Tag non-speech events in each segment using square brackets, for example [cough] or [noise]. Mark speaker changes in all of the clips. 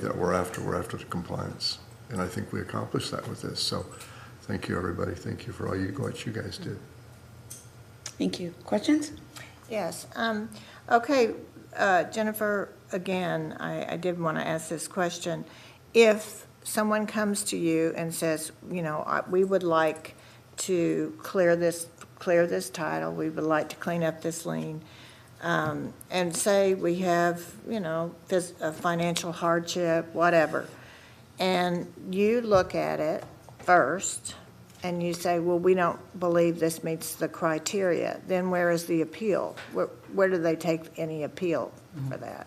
Speaker 1: that we're after, we're after the compliance. And I think we accomplished that with this. So thank you, everybody. Thank you for all you, what you guys did.
Speaker 2: Thank you. Questions?
Speaker 3: Yes, um, okay, uh, Jennifer, again, I, I did want to ask this question. If someone comes to you and says, you know, I- we would like to clear this, clear this title, we would like to clean up this lien, um, and say we have, you know, this, a financial hardship, whatever, and you look at it first, and you say, well, we don't believe this meets the criteria, then where is the appeal? Where, where do they take any appeal for that?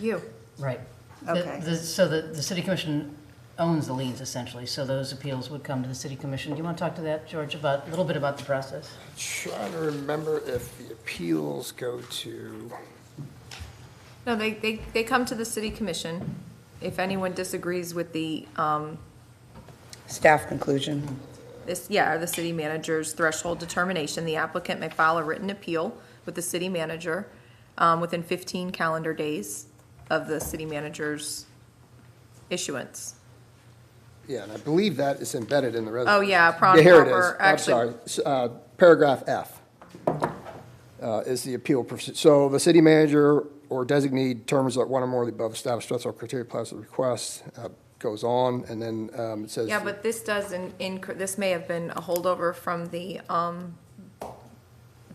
Speaker 4: You.
Speaker 5: Right. The-
Speaker 3: Okay.
Speaker 5: the- So the, the city commission owns the liens essentially, so those appeals would come to the city commission. Do you want to talk to that, George, about, a little bit about the process?
Speaker 6: Trying to remember if the appeals go to,
Speaker 4: No, they, they, they come to the city commission. If anyone disagrees with the, um,
Speaker 2: Staff conclusion.
Speaker 4: this, yeah, or the city manager's threshold determination, the applicant may file a written appeal with the city manager, um, within fifteen calendar days of the city manager's issuance.
Speaker 6: yeah, and I believe that is embedded in the resolution.
Speaker 4: Oh, yeah, Prawn
Speaker 6: Here it is,
Speaker 4: Harbor,
Speaker 6: I'm
Speaker 4: actually-
Speaker 6: sorry, S- uh, paragraph F uh, is the appeal, proce- so the city manager or designee determines that one or more of the above established threshold criteria applies to the request, uh, goes on, and then um, it says.
Speaker 4: Yeah, but this doesn't, inc- this may have been a holdover from the, um,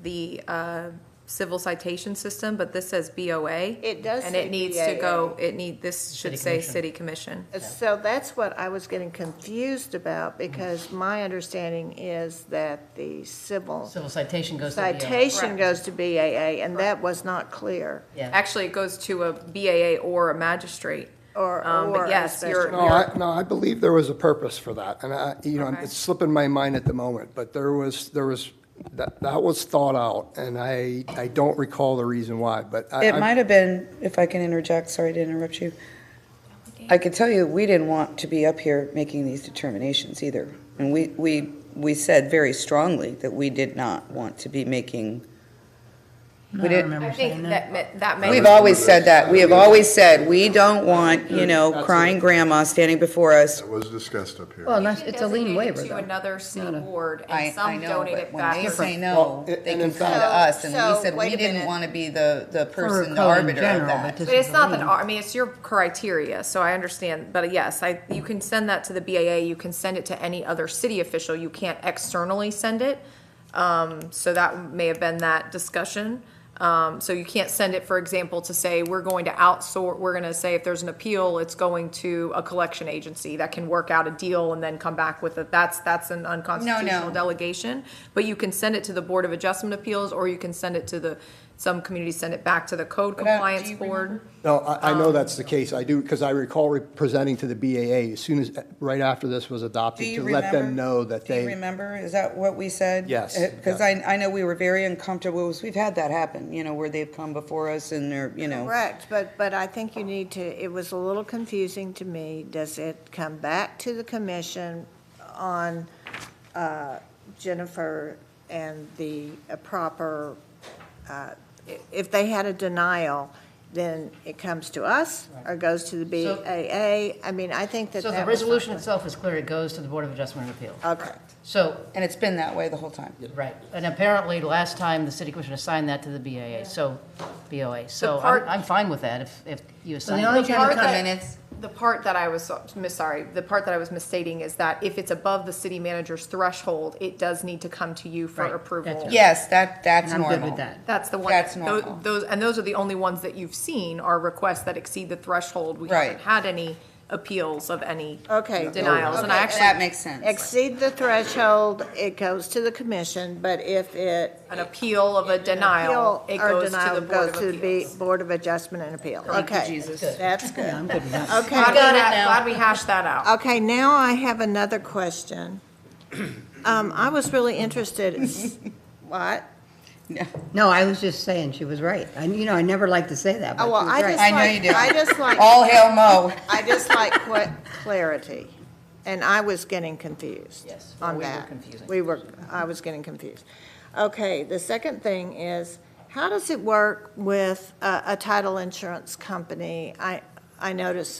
Speaker 4: the, uh, civil citation system, but this says BOA.
Speaker 3: It does
Speaker 4: And
Speaker 3: say
Speaker 4: it needs to
Speaker 3: BAA.
Speaker 4: go, it need, this should
Speaker 5: City
Speaker 4: say
Speaker 5: Commission.
Speaker 4: city commission.
Speaker 3: So that's what I was getting confused about, because my understanding is that the civil
Speaker 5: Civil citation goes to the. uh,
Speaker 3: citation
Speaker 4: Correct.
Speaker 3: goes to BAA, and that was not clear,
Speaker 5: Yeah,
Speaker 4: Actually, it goes to a BAA or a magistrate.
Speaker 3: or,
Speaker 4: Um, but
Speaker 3: or a
Speaker 4: yes, you're-
Speaker 3: special.
Speaker 6: No, I, no, I believe there was a purpose for that, and I, you know,
Speaker 4: Okay.
Speaker 6: it's slipping my mind at the moment, but there was, there was, that, that was thought out, and I, I don't recall the reason why, but I.
Speaker 2: It
Speaker 6: I-
Speaker 2: might have been, if I can interject, sorry to interrupt you. I could tell you, we didn't want to be up here making these determinations either. And we, we, we said very strongly that we did not want to be making, we didn't,
Speaker 4: I think that, ma- that may.
Speaker 2: We've always said that. We have always said, we don't want, you know, crying grandma standing before us.
Speaker 1: That was discussed up here.
Speaker 2: Oh,
Speaker 7: Well, that's, it's a lien
Speaker 4: Designated
Speaker 7: waiver,
Speaker 4: To
Speaker 7: though.
Speaker 4: another city board,
Speaker 2: I,
Speaker 4: and
Speaker 2: I
Speaker 4: some
Speaker 2: know,
Speaker 4: donate
Speaker 2: but
Speaker 4: it
Speaker 2: when
Speaker 4: back.
Speaker 2: they
Speaker 4: to-
Speaker 2: say
Speaker 6: Well,
Speaker 2: no,
Speaker 6: and-
Speaker 2: they
Speaker 6: and
Speaker 2: can
Speaker 6: in
Speaker 2: come to
Speaker 6: fact-
Speaker 2: us, and
Speaker 3: So-
Speaker 2: we said
Speaker 3: so wait
Speaker 2: we
Speaker 3: a
Speaker 2: didn't
Speaker 3: minute.
Speaker 2: want to be the, the person, the
Speaker 7: code in
Speaker 2: arbiter of
Speaker 7: general,
Speaker 2: that.
Speaker 7: but this-
Speaker 4: But it's not that, I mean, it's your criteria, so I understand, but yes, I, you can send that to the BAA, you can send it to any other city official, you can't externally send it. Um, so that may have been that discussion. Um, so you can't send it, for example, to say, we're going to outsource, we're gonna say if there's an appeal, it's going to a collection agency that can work out a deal and then come back with it. That's, that's an unconstitutional delegation. But you can send it to the Board of Adjustment Appeals, or you can send it to the, some communities send it back to the Code
Speaker 2: I- do
Speaker 4: Compliance
Speaker 2: you
Speaker 4: Board.
Speaker 6: No, I, I
Speaker 2: Um,
Speaker 6: know that's the case, I do, because I recall re- presenting to the BAA as soon as, right after this was
Speaker 2: Do
Speaker 6: adopted,
Speaker 2: you
Speaker 6: to
Speaker 2: remember?
Speaker 6: let them know that
Speaker 2: Do you
Speaker 6: they,
Speaker 2: remember? Is that what we said?
Speaker 6: Yes,
Speaker 2: Because I, I know we were very uncomfortable. was- We've had that happen, you know, where they've come before us and they're, you know.
Speaker 3: Correct, but, but I think you need to, it was a little confusing to me. Does it come back to the commission on uh, Jennifer and the uh, proper, uh, i- if they had a denial, then it comes to us or goes to the
Speaker 5: So-
Speaker 3: BAA? I mean, I think that
Speaker 5: so the
Speaker 3: that was.
Speaker 5: resolution itself is clear, it goes to the Board of Adjustment and Appeal.
Speaker 3: Okay,
Speaker 5: So,
Speaker 2: And it's been that way the whole time.
Speaker 5: right, and apparently last time, the city commission assigned that to the BAA, so, BOA, so
Speaker 4: part-
Speaker 5: I'm, I'm fine with that if, if you assign.
Speaker 7: the
Speaker 5: it.
Speaker 7: only
Speaker 4: The
Speaker 7: time
Speaker 4: part
Speaker 7: it comes
Speaker 4: that-
Speaker 7: in, it's,
Speaker 4: The part that I was, miss- sorry, the part that I was misstating is that if it's above the city manager's threshold, it does need to come to you for
Speaker 5: Right,
Speaker 4: approval.
Speaker 5: that's-
Speaker 2: Yes, that, that's
Speaker 5: I'm
Speaker 2: normal.
Speaker 5: good with that.
Speaker 4: That's the one.
Speaker 2: That's
Speaker 4: tho-
Speaker 2: normal.
Speaker 4: Those, and those are the only ones that you've seen are requests that exceed the threshold. We haven't
Speaker 2: Right.
Speaker 4: had any appeals of any
Speaker 3: okay.
Speaker 4: denials, and I
Speaker 3: Okay,
Speaker 2: That
Speaker 4: actually,
Speaker 2: makes sense.
Speaker 3: Exceed the threshold, it goes to the commission, but if it
Speaker 4: an appeal of a denial,
Speaker 3: appeal
Speaker 4: it
Speaker 3: or
Speaker 4: goes to
Speaker 3: denial
Speaker 4: the Board
Speaker 3: goes
Speaker 4: of
Speaker 3: to the
Speaker 4: Appeals.
Speaker 3: B- Board of Adjustment and Appeal.
Speaker 2: Thank you,
Speaker 3: Okay,
Speaker 2: Jesus.
Speaker 3: that's good.
Speaker 7: I'm good with that.
Speaker 3: Okay.
Speaker 4: Glad we ha- glad we hashed that out.
Speaker 3: Okay, now I have another question. Um, I was really interested,
Speaker 7: [laughs]
Speaker 3: what?
Speaker 7: No, I was just saying, she was right. And, you know, I never like to say that, but
Speaker 3: Oh,
Speaker 7: she
Speaker 3: well, I
Speaker 7: was
Speaker 3: just
Speaker 7: right.
Speaker 2: I know
Speaker 3: like,
Speaker 2: you do.
Speaker 3: I
Speaker 5: [laughs]
Speaker 3: just like.
Speaker 2: All hail Mo.
Speaker 3: [laughs] I just like qu- clarity, and I was getting confused.
Speaker 5: Yes, well,
Speaker 3: on
Speaker 5: we were
Speaker 3: that.
Speaker 5: confusing.
Speaker 3: We were, I was getting confused. Okay, the second thing is, how does it work with a, a title insurance company? I, I noticed